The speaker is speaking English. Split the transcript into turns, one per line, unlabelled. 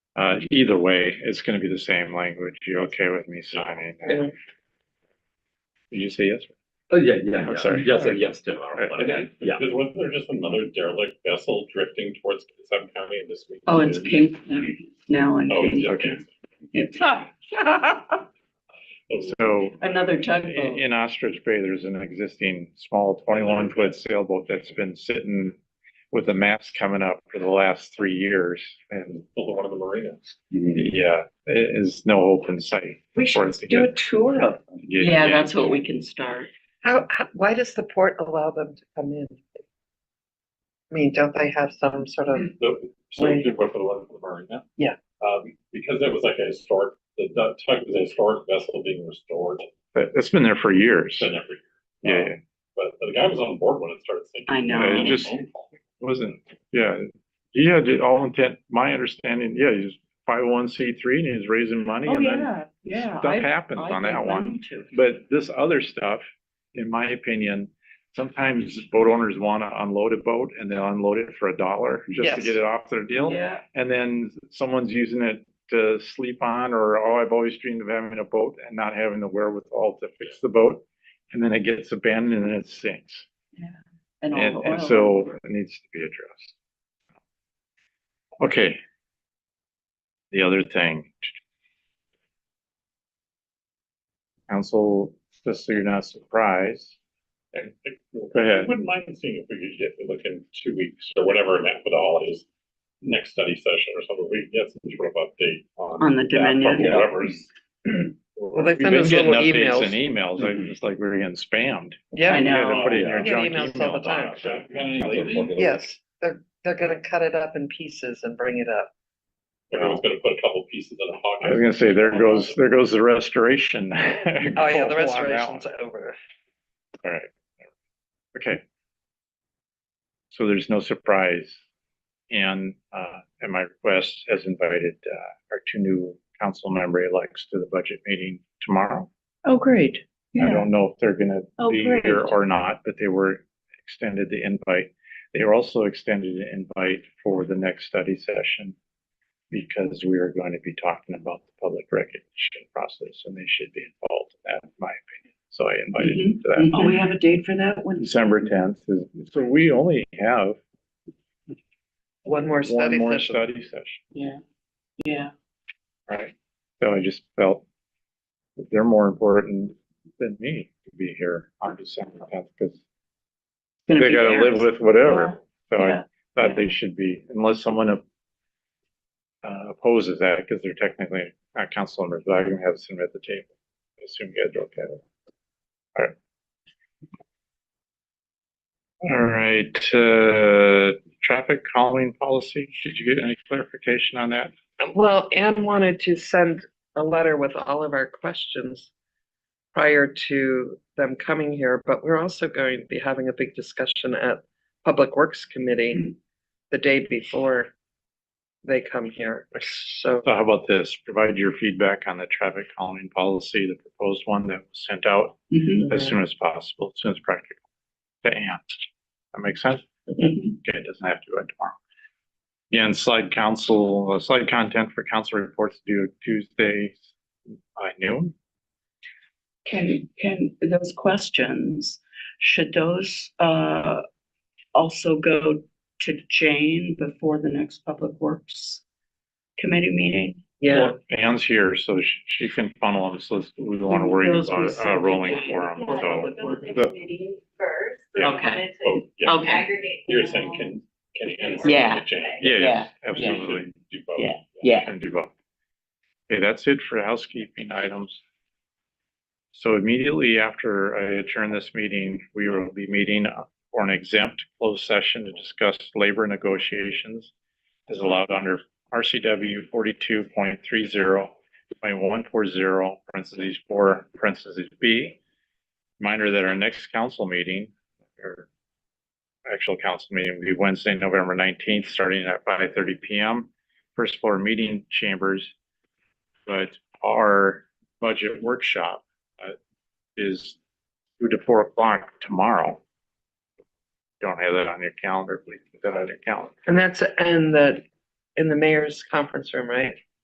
Uh, either way, it's gonna be the same language. You okay with me signing? that?
Yeah.
Did you say yes?
Oh, yeah, yeah,
I'm
yeah.
sorry.
Yes, and yes, Tim.
Uh,
And then,
Yeah.
wasn't there just another derelict vessel drifting towards Sam County in this week?
Oh, it's pink now and
Oh,
pink.
yeah,
Okay.
okay.
So
Another
in,
tugboat.
in Ostrich Bay, there's an existing small twenty-one foot sailboat that's been sitting with the masts coming up for the last three years and
Built one of the marinas.
yeah, it is no open sight.
We
for
should
us to
do a
get.
tour of them.
Yeah, that's what we can start.
How, how, why does the port allow them to come in? I mean, don't they have some sort of,
So, so we did work for the one for the marina.
Yeah.
Um, because that was like a historic, the, that tug was a historic vessel being restored.
But it's been there for years.
It's been every
Yeah,
year.
yeah.
Um, But but the guy was on board when it started sinking.
I know.
Yeah, it just- Wasn't, yeah, yeah, did all intent, my understanding, yeah, he's five oh one C three and he's raising money and then
Oh, yeah.
Oh, stuff happens on that one. But this other stuff, in my opinion, sometimes boat owners wanna unload a boat and they unload it for a dollar just to
Yes.
get it off their deal.
Yeah,
And then someone's using it to sleep on or, oh, I've always dreamed of having a boat and not having the wherewithal to fix the boat. And then it gets abandoned and it sinks.
and all
And,
the oil.
and so it needs to be addressed. Okay. The other thing. Council, just so you're not surprised,
And I-
Go ahead.
Wouldn't mind seeing if we could get, look in two weeks or whatever, and after the holidays, next study session or something, we can get some sort of update on.
On the
that
Dominion.
from Whoever's.
well, they
we've
send
been
us
getting
little
updates and
emails. Mm-hmm.
emails, I just like we were getting spammed.
I
Yeah,
know.
You had to put it in your
I get
junk
emails all the
email
time.
box.
Got any lately?
yes, they're, they're gonna cut it up in pieces and bring it up.
Everyone's gonna put a couple pieces in a
I
pocket.
was gonna say, there goes, there goes the restoration.
Oh, yeah, the restoration's over.
All right. Okay. So there's no surprise. And, uh, at my request has invited, uh, our two new council member elects to the budget meeting tomorrow.
Oh, great.
I
Yeah,
don't know if they're gonna
Oh,
be
great.
here or not, but they were extended the invite. They were also extended an invite for the next study session because we are going to be talking about the public recognition process and they should be involved in that, in my opinion. So I invited them to that.
Oh, we have a date for that one?
December tenth is, so we only have
One more
one
study
more
session.
study session,
Yeah, yeah.
right? So I just felt that they're more important than me to be here on December tenth, because
It's gonna
they
be
gotta
there.
live with whatever. So
Yeah,
I thought they should be, unless someone op- uh, opposes that, because they're technically not council members, but I can have some at the table. I assume you guys are okay with it. All right. All right, uh, traffic calming policy, did you get any clarification on that?
Well, Anne wanted to send a letter with all of our questions prior to them coming here, but we're also going to be having a big discussion at Public Works Committee the day before they come here. So,
So how about this, provide your feedback on the traffic calming policy, the proposed one that was sent out
Mhm,
as soon as possible, as soon as practical. To Ann, that makes sense?
mhm.
Okay, it doesn't have to by tomorrow. Yeah, and slide council, uh, slide content for council reports due Tuesday by noon.
Can, can, those questions, should those, uh, also go to Jane before the next Public Works Committee meeting?
yeah,
Well, Anne's here, so she, she can funnel them, so it's- we don't want to worry
Those we
about a
said
rolling
we-
forum,
Yeah.
Um, so.
The meeting first. so we
Yeah.
wanted to
Oh, yeah.
Okay.
Aggregate.
You're
them
saying
all.
can, can. Ann
Yeah.
and Jane
Yeah, yeah,
do
absolutely.
both?
Yeah. Yeah.
And do both. Okay, that's it for housekeeping items. So immediately after I adjourn this meeting, we will be meeting for an exempt closed session to discuss labor negotiations as allowed under RCW forty-two point three zero point one four zero, parentheses four, parentheses B. Reminder that our next council meeting, or actual council meeting, will be Wednesday, November nineteenth, starting at five thirty PM. First floor meeting chambers, but our budget workshop uh, is two to four o'clock tomorrow. Don't have that on your calendar, please, put that on your calendar.
and that's, and the in the mayor's conference room, right?